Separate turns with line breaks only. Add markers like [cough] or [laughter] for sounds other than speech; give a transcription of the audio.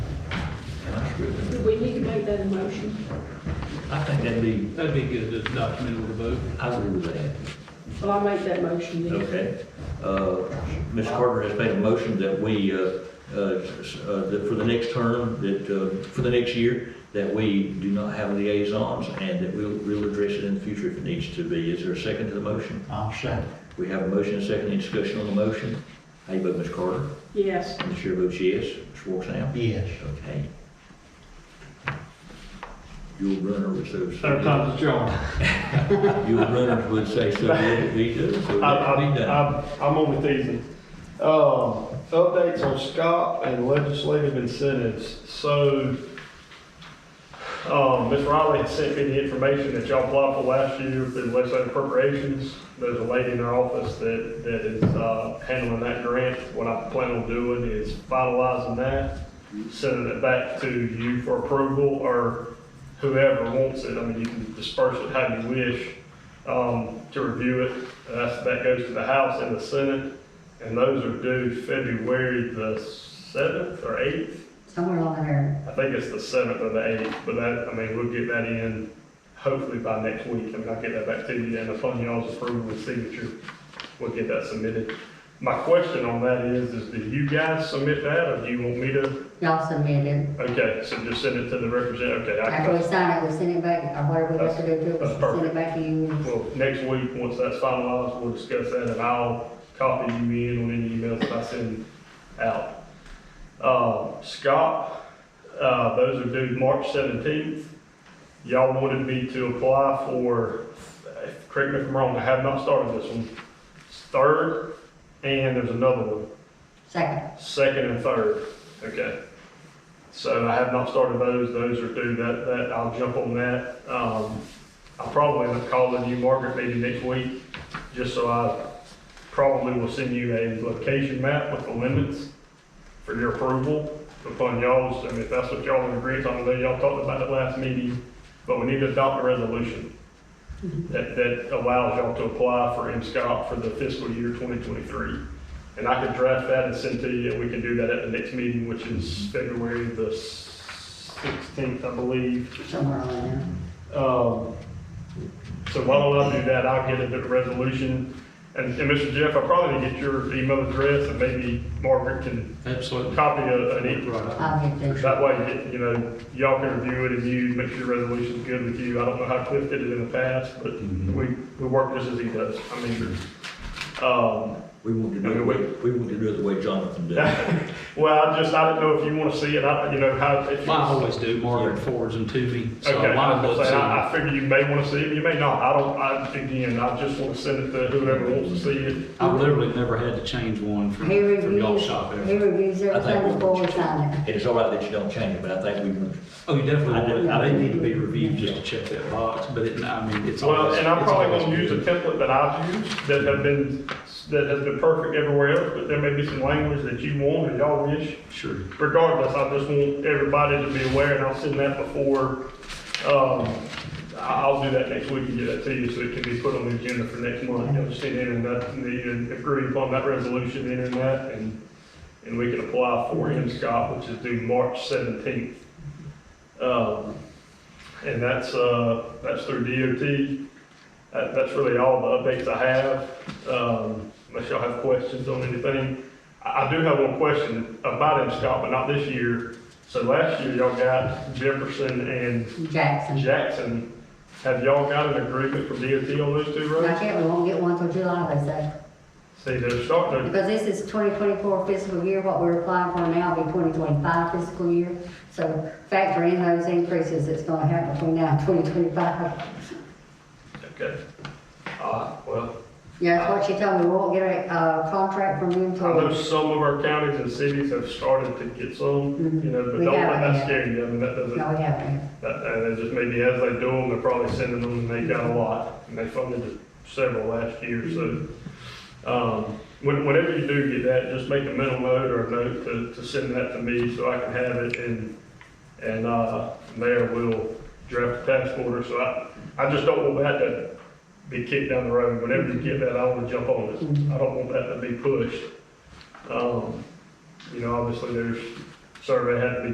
Do we need to make that a motion?
I think that'd be,
That'd be good, to document with a vote.
I agree with that.
Well, I'll make that motion then.
Okay. Uh, Ms. Carter has made a motion that we, uh, uh, s- uh, that for the next term, that, uh, for the next year, that we do not have liaisons and that we'll, we'll address it in the future if it needs to be. Is there a second to the motion?
I'll second.
We have a motion, and a second, any discussion on the motion? How you vote, Ms. Carter?
Yes,
And the chair votes yes. Ms. Walksnail?
Yes.
Okay. Your runner would so.
Sometimes it's John.
Your runner would say so, it be done, so
I, I,
that'd be done.
I'm, I'm on with these. Um, updates on SCOP and legislative incentives. So, um, Ms. Riley had sent me the information that y'all applied for last year through legislative appropriations. There's a lady in our office that, that is, uh, handling that grant. What I plan on doing is finalizing that, sending it back to you for approval or whoever wants it. I mean, you can disperse it how you wish, um, to review it. That's, that goes to the House and the Senate, and those are due February the seventh or eighth.
somewhere along there.
I think it's the seventh or the eighth, but that, I mean, we'll get that in hopefully by next week. I mean, I'll get that back to you and upon y'all's approval and signature, we'll get that submitted. My question on that is, is do you guys submit that or do you want me to?
Y'all submitted.
Okay, so just send it to the representative, okay. I
After we
can-
sign it, we send it back, or whatever we have to do, to it,
That's- that's
we send it back to you.
Well, next week, once that's finalized, we'll discuss that and I'll copy you in on any emails that I send out. Uh, Scott, uh, those are due March seventeenth. Y'all wanted me to apply for, uh, correct me if I'm wrong, I have not started this one. Third, and there's another one.
Second,
Second and third, okay. So I have not started those, those are due, that, that, I'll jump on that. Um, I'll probably end up calling you, Margaret, maybe next week, just so I probably will send you a location map with the limits for your approval upon y'all's, I mean, if that's what y'all in agreement on, I know y'all talked about it last meeting, but we need to adopt a resolution that, that allows y'all to apply for MSCOP for the fiscal year 2023. And I could draft that and send to you, and we can do that at the next meeting, which is February the sixteenth, I believe.
somewhere along there.
Um, so why don't I do that? I'll get a resolution. And, and Mr. Jeff, I'll probably get your email address, and maybe Margaret can
Absolutely.
copy a, an email.
Right.
I'll get this.
That way, you know, y'all can review it and you make sure the resolution's good with you. I don't know how Cliff did it in the past, but we, we work just as he does. I mean, um,
We want to do
I
it, the
mean,
way- we want to do it the way Jonathan did.
[laughs] Well, I just, I didn't know if you want to see it, I, you know, how. if you-
Mine always do, Margaret forwards them to me, so
Okay,
mine
I was
looks.
gonna say, I, I figure you may want to see it, you may not, I don't, I, again, I just want to send it to whoever wants to see it.
I've literally never had to change one from,
He
from y'all
reviews,
shop.
he
ever.
reviews
I think
everything
we'll-
before we sign it.
And it's all right that you don't change it, but I think we want,
Oh, you
I
definitely,
did-
would. they need to be reviewed just to check that box, but it, I mean, it's.
Well,
always-
and I'm
it's
probably
always
going to use a
good.
template that I've used, that have been, that has been perfect everywhere else, but there may be some language that you want or y'all wish.
Sure.
Regardless, I just want everybody to be aware, and I'll send that before, um, I- I'll do that next week and get that to you, so it can be put on the agenda for next month. You'll just send in and that, and then agree upon that resolution, in and that, and, and we can apply for MSCOP, which is due March seventeenth. Um, and that's, uh, that's through DOT. That, that's really all the updates I have, um, unless y'all have questions on anything. I, I do have one question about MSCOP, but not this year. So last year, y'all got Jefferson and
Jackson.
Jackson. Have y'all got an agreement from DOT on those two
Not
roads?
yet, we won't get one till July, they say.
See, they're starting, to-
Because this is 2024 fiscal year, what we're applying for now will be 2025 fiscal year. So factor in those increases that's gonna happen between now and 2025.
okay. Uh, well,
Yeah, that's what she told me, we won't get a, uh contract from them
I know
till,
some of our counties and cities have started to get some, you know, but
We
don't let
haven't
that
yet.
scare you. I mean, that doesn't,
no, we haven't.
that- Uh, and it just maybe as they do them, they're probably sending them, and they got a lot. And they funded several last year, so, um, when- whenever you do get that, just make a mental note or a note to, to send that to me so I can have it and, and, uh, mayor will draft a task order. So I, I just don't want that to be kicked down the road. Whenever you get that, I want to jump on
Mm-hmm.
it. I don't want that to be pushed. Um, you know, obviously there's, survey had to be